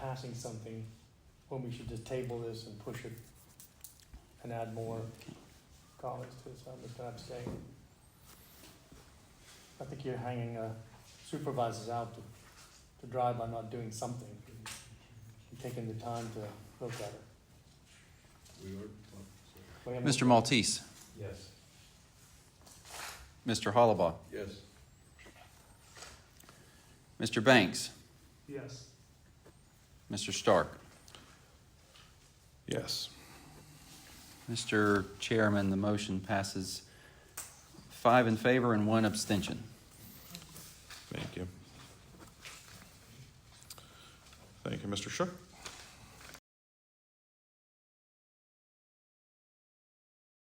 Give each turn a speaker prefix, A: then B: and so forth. A: passing something when we should just table this and push it and add more comments to it, so I'm just gonna abstain. I think you're hanging uh, supervisors out to, to dry by not doing something, and taking the time to look at it.
B: We are. uh,
A: Wait a minute.
C: Mr. Maltese,
B: Yes.
C: Mr. Hollibaugh,
B: Yes.
C: Mr. Banks,
A: Yes.
C: Mr. Stark.
B: Yes.
C: Mr. Chairman, the motion passes five in favor and one abstention.
D: Thank you. Thank you, Mr. Shook.